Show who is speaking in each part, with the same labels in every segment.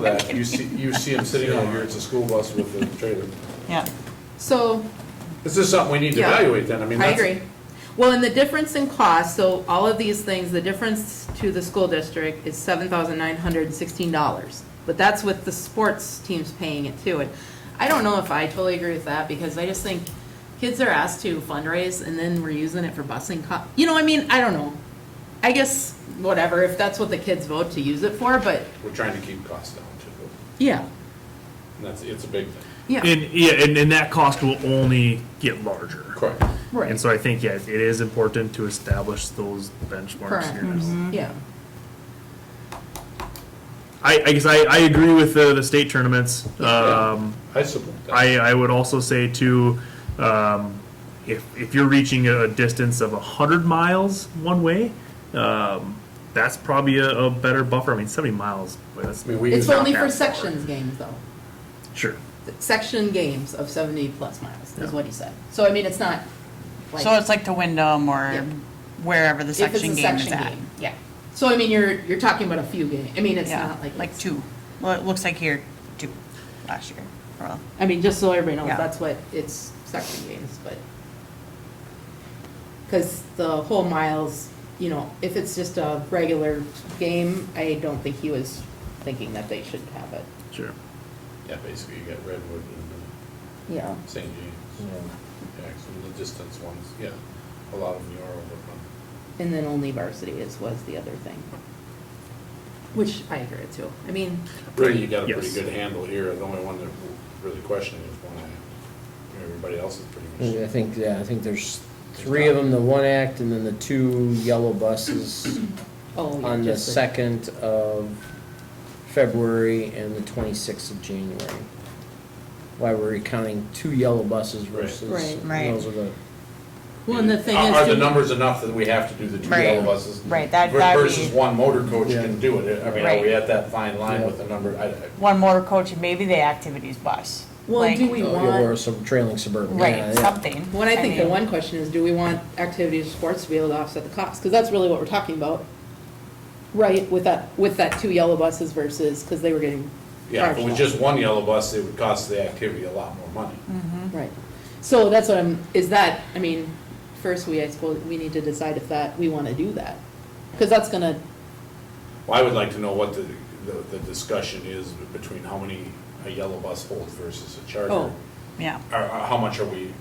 Speaker 1: that, you see, you see him sitting out here, it's a school bus with a trailer.
Speaker 2: Yeah,
Speaker 3: So,
Speaker 1: This is something we need to
Speaker 3: Yeah.
Speaker 1: evaluate then, I mean,
Speaker 3: I
Speaker 1: that's.
Speaker 3: agree. Well, and the difference in cost, so all of these things, the difference to the school district is seven thousand nine hundred and sixteen dollars. But that's with the sports teams paying it too. And I don't know if I totally agree with that because I just think kids are asked to fundraise and then we're using it for busing co- you know, I mean, I don't know. I guess, whatever, if that's what the kids vote to use it for, but,
Speaker 1: We're trying to keep costs down too,
Speaker 3: yeah,
Speaker 1: and that's, it's a big thing.
Speaker 3: yeah,
Speaker 4: And, yeah, and, and that cost will only get larger.
Speaker 1: Correct.
Speaker 4: And
Speaker 3: right,
Speaker 4: so I think, yeah, it is important to establish those benchmarks
Speaker 3: Correct. Mm-hmm.
Speaker 4: here now.
Speaker 3: yeah.
Speaker 4: I, I guess I, I agree with the, the state tournaments.
Speaker 1: Yeah.
Speaker 4: Um,
Speaker 1: I support that.
Speaker 4: I, I would also say too, um, if, if you're reaching a distance of a hundred miles one way, um, that's probably a, a better buffer. I mean, seventy miles, boy, that's,
Speaker 1: I mean, we
Speaker 3: It's
Speaker 1: use,
Speaker 4: not
Speaker 3: only
Speaker 4: that
Speaker 3: for
Speaker 4: far.
Speaker 3: sections games though.
Speaker 4: sure.
Speaker 3: section games of 70 plus miles,
Speaker 4: Yeah.
Speaker 3: is what he said. So, I mean, it's not like.
Speaker 2: so it's like to Wyndham or
Speaker 3: Yep.
Speaker 2: wherever the
Speaker 3: if it's
Speaker 2: section
Speaker 3: a
Speaker 2: game is
Speaker 3: section
Speaker 2: at.
Speaker 3: game, Yeah. So, I mean, you're, you're talking about a few games. I mean, it's
Speaker 2: Yeah,
Speaker 3: not like.
Speaker 2: Like
Speaker 3: it's-
Speaker 2: two, well, it looks like here, two, last year, well,
Speaker 3: I mean, just so everybody knows,
Speaker 2: Yeah.
Speaker 3: that's what, it's section games, but. Because the whole miles, you know, if it's just a regular game, I don't think he was thinking that they should have it.
Speaker 4: Sure.
Speaker 1: yeah, basically, you got Redwood and
Speaker 3: Yeah.
Speaker 1: uh, St. James, yeah, some of the distance ones, yeah, a lot of them are over.
Speaker 3: And then only varsity is, was the other thing. Which I agree with too. I mean,
Speaker 1: Really, you got a pretty
Speaker 4: Yes.
Speaker 1: good handle here, the only one that we're really questioning is one I, everybody else is pretty
Speaker 5: I
Speaker 1: much.
Speaker 5: think, yeah, I think there's three of them, the one act, and then the two yellow buses
Speaker 3: oh. yeah,
Speaker 5: on the
Speaker 3: just
Speaker 5: second of February and the twenty-sixth of January. Why we're we counting two yellow buses
Speaker 1: Right.
Speaker 5: versus,
Speaker 3: Right.
Speaker 2: Right.
Speaker 5: those are the,
Speaker 3: Well, and the thing
Speaker 1: Are-
Speaker 3: is.
Speaker 1: Are
Speaker 3: do
Speaker 1: the
Speaker 3: we-
Speaker 1: numbers enough that we have to do the two
Speaker 2: Right.
Speaker 1: yellow buses?
Speaker 2: Right, that-
Speaker 1: ver-
Speaker 2: that'd be-
Speaker 1: Versus one motor coach
Speaker 5: Yeah.
Speaker 1: can do it, I mean, are we at that fine line with the number? I- I-
Speaker 2: one motor coach and maybe the activities bus.
Speaker 3: Well, do
Speaker 2: Like-
Speaker 3: we
Speaker 5: or
Speaker 3: want,
Speaker 5: some trailing suburban. Yeah,
Speaker 2: Right,
Speaker 5: yeah.
Speaker 2: something.
Speaker 3: well, and I think the
Speaker 2: mean,
Speaker 3: one question is, do we want activities or sports to be able to offset the cost? Because that's really what we're talking about. Right, with that, with that two yellow buses versus, because they were getting
Speaker 1: Yeah, if it
Speaker 3: charged
Speaker 1: was
Speaker 3: up.
Speaker 1: just one yellow bus, it would cost the activity a lot more money.
Speaker 3: Mm. Right. So that's what I'm, is that, I mean, first we, I suppose, we need to decide if that, we want to do that. Because that's gonna,
Speaker 1: Well, I would like to know what the, the- the discussion is between how many a yellow bus holds versus a charter.
Speaker 3: Oh.
Speaker 1: Or
Speaker 2: Yeah,
Speaker 1: or how much are we,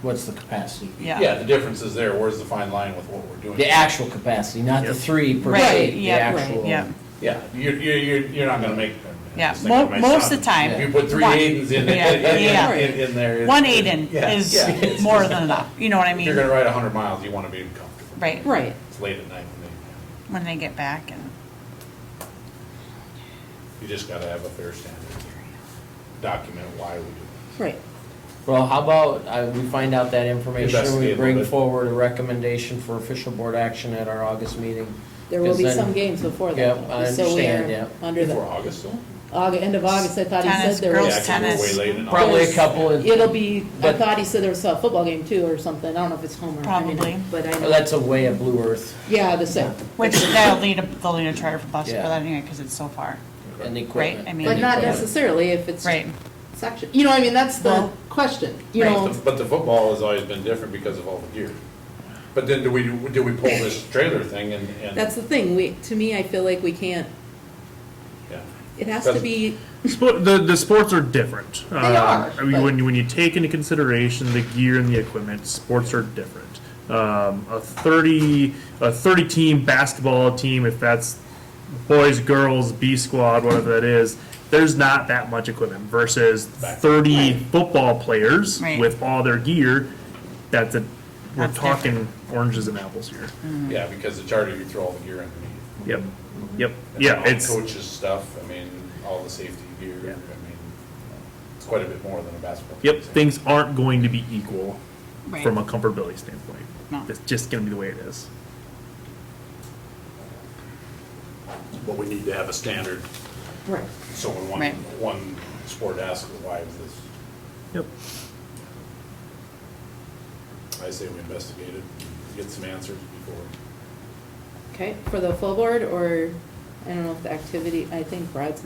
Speaker 5: What's the capacity?
Speaker 1: yeah,
Speaker 2: yeah.
Speaker 1: the difference is there, where's the fine line with what we're doing?
Speaker 5: The actual capacity, not the
Speaker 4: Yep.
Speaker 5: three per
Speaker 2: Right,
Speaker 5: se, the
Speaker 2: yeah, right,
Speaker 5: actual.
Speaker 2: yeah.
Speaker 1: Yeah, you're, you're, you're, you're not gonna make. I'm
Speaker 2: Yeah,
Speaker 1: just thinking
Speaker 2: mo-
Speaker 1: to
Speaker 2: most of the
Speaker 1: myself,
Speaker 2: time,
Speaker 1: If you put three
Speaker 2: one.
Speaker 1: Aidens in, in,
Speaker 2: Yeah, yeah.
Speaker 1: in- in, in there. it's-
Speaker 2: One Aiden
Speaker 1: yeah, yeah,
Speaker 2: is
Speaker 1: it's
Speaker 2: more
Speaker 1: just-
Speaker 2: than enough, you know what I
Speaker 1: if
Speaker 2: mean?
Speaker 1: You're gonna ride a hundred miles, you wanna be comfortable.
Speaker 2: Right,
Speaker 3: right.
Speaker 1: It's late at night, and they-
Speaker 2: when they get back and,
Speaker 1: you just gotta have a fair standard. Document why we do it.
Speaker 3: Right.
Speaker 5: Well, how about, uh, we find out that information, and
Speaker 1: Investigate a
Speaker 5: we
Speaker 1: little
Speaker 5: bring
Speaker 1: bit.
Speaker 5: forward a recommendation for official board action at our August meeting?
Speaker 3: There will be
Speaker 5: 'Cause then-
Speaker 3: some games before
Speaker 5: Yep,
Speaker 3: that. though,
Speaker 5: I
Speaker 3: so we are
Speaker 5: understand, yep.
Speaker 3: Under
Speaker 1: Before
Speaker 3: the,
Speaker 1: August, still?
Speaker 3: Aug, end of August, I thought he said
Speaker 2: Tennis,
Speaker 3: there was.
Speaker 2: girls
Speaker 1: Yeah, actually, we're
Speaker 2: tennis.
Speaker 1: Way late in August.
Speaker 5: Probably a couple, of-
Speaker 3: It'll be, I
Speaker 5: But-
Speaker 3: thought he said there was a football game too or something, I don't know if it's home or. I mean,
Speaker 2: Probably.
Speaker 3: But I
Speaker 5: well,
Speaker 3: know,
Speaker 5: that's a way of Blue Earth,
Speaker 3: yeah, the sixth,
Speaker 2: which they'll need a, they'll need a charter for bus for
Speaker 5: Yeah.
Speaker 2: that anyway, because it's so far.
Speaker 5: and the equipment.
Speaker 2: Right, I mean-
Speaker 3: but not
Speaker 5: Yeah.
Speaker 3: necessarily if it's
Speaker 2: Right,
Speaker 3: section, you know, I mean, that's the
Speaker 2: Well-
Speaker 3: question, you
Speaker 2: Right.
Speaker 3: know.
Speaker 1: But the- But the football has always been different because of all the gear. But then do we, do we pull this trailer thing and, and?
Speaker 3: That's the thing, we, to me, I feel like we can't,
Speaker 1: yeah.
Speaker 3: it has to
Speaker 1: That's-
Speaker 3: be,
Speaker 4: Spo- the the sports are different. They
Speaker 3: are,
Speaker 4: I mean,
Speaker 3: but-
Speaker 4: when you when you take into consideration the gear and the equipment, sports are different. Um, a thirty a thirty team basketball team, if that's boys, girls, B squad, whatever that is, there's not that much equipment versus
Speaker 1: Right.
Speaker 4: thirty football players
Speaker 2: Right.
Speaker 4: with all their gear. That's a we're
Speaker 2: That's
Speaker 4: talking oranges and apples here.
Speaker 1: Yeah, because the charter, you throw all the gear underneath.
Speaker 4: Yep. Yep.
Speaker 1: And
Speaker 4: Yeah.
Speaker 1: Mm. all the
Speaker 4: It's
Speaker 1: Coaches stuff, I mean, all the safety gear, I
Speaker 4: Yeah.
Speaker 1: mean, it's quite a bit more than a basketball.
Speaker 4: Yep,
Speaker 1: team.
Speaker 4: things aren't going to be equal
Speaker 2: Right.
Speaker 4: from a comfortability standpoint.
Speaker 2: No.
Speaker 4: It's just gonna be the way it is.
Speaker 1: But we need to have a standard,
Speaker 3: right,
Speaker 1: so when one,
Speaker 2: Right.
Speaker 1: one sport asks, why is this,
Speaker 4: Yep.
Speaker 1: I say we investigate it, get some answers before.
Speaker 3: okay, for the full board or I don't know if the activity, I think Brad's